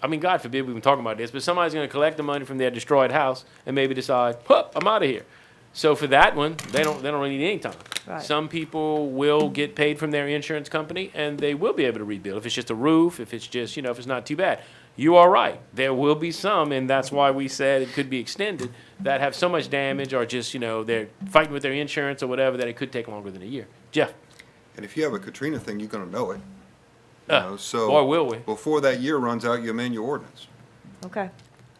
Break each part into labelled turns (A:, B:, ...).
A: I mean, God forbid we've been talking about this, but somebody's going to collect the money from their destroyed house and maybe decide, "Hup, I'm out of here." So for that one, they don't they don't really need any time.
B: Right.
A: Some people will get paid from their insurance company and they will be able to rebuild if it's just a roof, if it's just you know if it's not too bad. You are right. There will be some, and that's why we said it could be extended that have so much damage or just you know they're fighting with their insurance or whatever that it could take longer than a year. Jeff,
C: And if you have a Katrina thing, you're gonna know it. You
A: Uh,
C: know, so.
A: boy, will we.
C: Before that year runs out, you amend your ordinance.
B: Okay.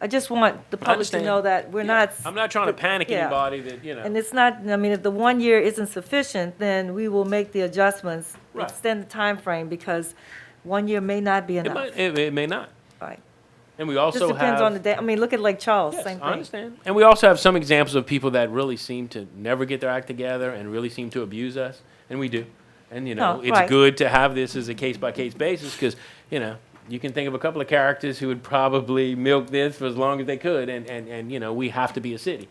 B: I just want the public to
A: understand.
B: know that we're not.
A: I'm not trying to panic
B: Yeah.
A: anybody that you know.
B: And it's not, I mean, if the one year isn't sufficient, then we will make the adjustments,
A: Right.
B: extend the time frame because one year may not be
A: it,
B: enough.
A: might, it, it may not.
B: Right.
A: And we
B: Just
A: also have
B: depends on the day. I mean, look at Lake Charles,
A: Yes,
B: same
A: I
B: thing.
A: understand. And we also have some examples of people that really seem to never get their act together and really seem to abuse us, and we do. And you know,
B: No,
A: it's
B: right.
A: good to have this as a case by case basis because you know you can think of a couple of characters who would probably milk this for as long as they could, and and and you know we have to be a city,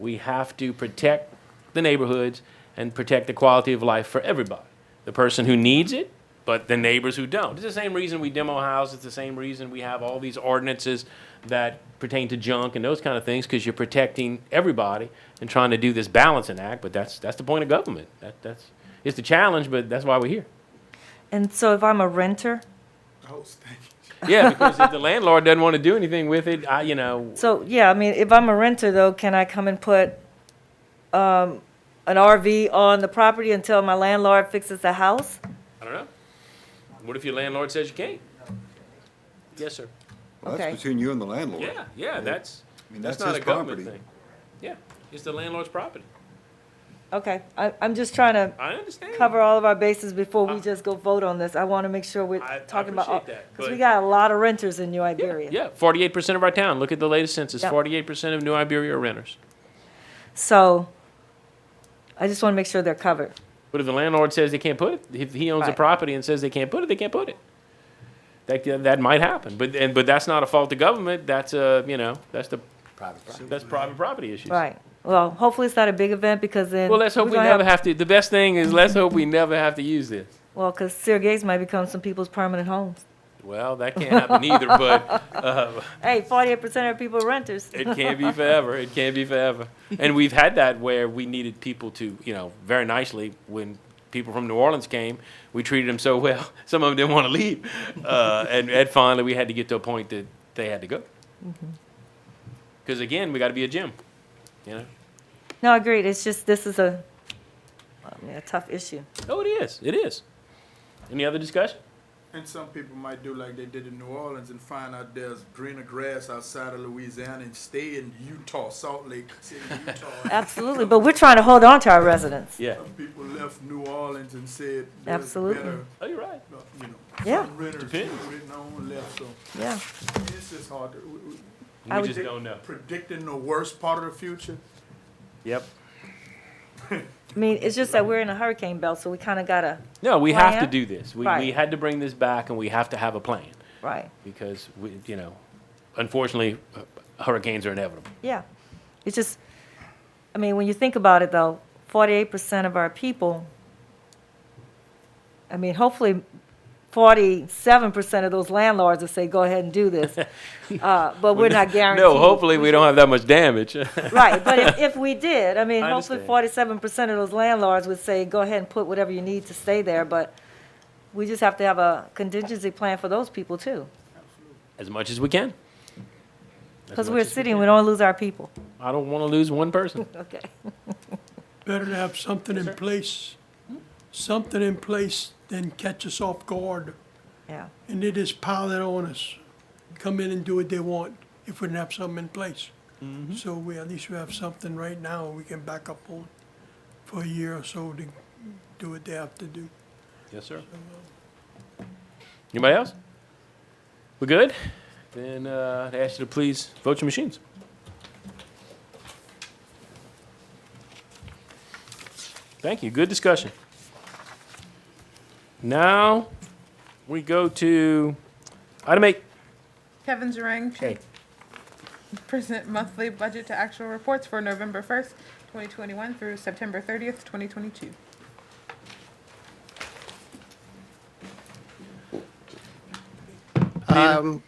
A: we have to protect the neighborhoods and protect the quality of life for everybody, the person who needs it. But the neighbors who don't. It's the same reason we demo houses. It's the same reason we have all these ordinances that pertain to junk and those kind of things because you're protecting everybody and trying to do this balancing act. But that's that's the point of government. That that's it's the challenge, but that's why we're here.
B: And so if I'm a renter,
A: Yeah, because if the landlord doesn't want to do anything with it, I you know
B: so, yeah, I mean, if I'm a renter though, can I come and put, um, an RV on the property until my landlord fixes the house?
A: I don't know. What if your landlord says you can't? Yes, sir.
C: Well, that's
B: Okay.
C: between you and the landlord.
A: Yeah, yeah, that's
C: I mean,
A: that's,
C: that's
A: not a
C: his
A: government
C: property.
A: thing. Yeah, it's the landlord's property.
B: Okay, I, I'm just trying to
A: I understand.
B: cover all of our bases before
A: I-
B: we just go vote on this. I want to make sure we're
A: I- I
B: talking about.
A: appreciate that,
B: Because we
A: but-
B: got a lot of renters in New Iberia.
A: Yeah, forty-eight percent of our town. Look at the latest census.
B: Yep.
A: Forty-eight percent of New Iberia are renters.
B: So I just want to make sure they're covered.
A: But if the landlord says they can't put it, if he owns a
B: Right.
A: property and says they can't put it, they can't put it. That, that might happen, but, and, but that's not a fault of government, that's a, you know, that's the. Private property. That's private property issues.
B: Right. Well, hopefully it's not a big event because then.
A: Well, let's hope
B: we're
A: we
B: gonna
A: never have to, the best thing is let's hope we never have to use this.
B: Well, because Sear Gates might become some people's permanent homes.
A: Well, that can't happen either, but, uh,
B: Hey, forty-eight percent of people are renters.
A: It can't be forever. It can't be forever. And we've had that where we needed people to, you know, very nicely when people from New Orleans came, we treated them so well. Some of them didn't want to leave, uh, and, and finally we had to get to a point that they had to go.
B: Mm-hmm.
A: Because again, we got to be a gym, you know.
B: No, agreed. It's just, this is a, I mean, a tough issue.
A: Oh, it is. It is. Any other discussion?
D: And some people might do like they did in New Orleans and find out there's greener grass outside of Louisiana and stay in Utah, Salt Lake City, Utah.
B: Absolutely, but we're trying to hold on to our residents.
A: Yeah.
D: Some people left New Orleans and said there's
B: Absolutely.
D: better,
A: Oh, you're right.
D: uh, you know,
B: Yeah.
D: some renters
A: Depends.
D: written on left. So
B: Yeah.
D: it's just hard to w- w-
B: I
A: We
B: would
A: just
D: predict-
A: don't know.
D: Predicting the worst part of the future.
A: Yep.
B: I mean, it's just that we're in a hurricane belt, so we kind of gotta,
A: No, we have to
B: Plan?
A: do this. We, we
B: Right.
A: had to bring this back, and we have to have a plan
B: right.
A: because we, you know, unfortunately, uh, hurricanes are inevitable.
B: Yeah. It's just, I mean, when you think about it though, forty-eight percent of our people, I mean, hopefully forty-seven percent of those landlords will say, go ahead and do this. Uh, but we're not guaranteed.
A: No, hopefully we don't have that much damage.
B: Right, but if, if we did, I mean,
A: I
B: hopefully
A: understand.
B: forty-seven percent of those landlords would say, go ahead and put whatever you need to stay there, but we just have to have a contingency plan for those people too.
A: as much as we can. As
B: Because
A: much
B: we're a
A: as we
B: city and
A: can.
B: we don't lose our people.
A: I don't want to lose one person.
B: Okay.
E: Better to have something in place, something in place than catch us off guard
B: Yeah,
E: and they just pile it on us. Come in and do what they want if we didn't have something in place. So we, at least we have something right now we can back up on for a year or so to do what they have to do.
A: Yes, sir. Anybody else? We good? Then uh, I ask you to please vote your machines. Thank you. Good discussion. Now we go to item eight.
F: Kevin Zarang
A: Hey.
F: to present monthly budget to actual reports for November first, twenty twenty-one through September thirtieth, twenty twenty-two.
G: Um,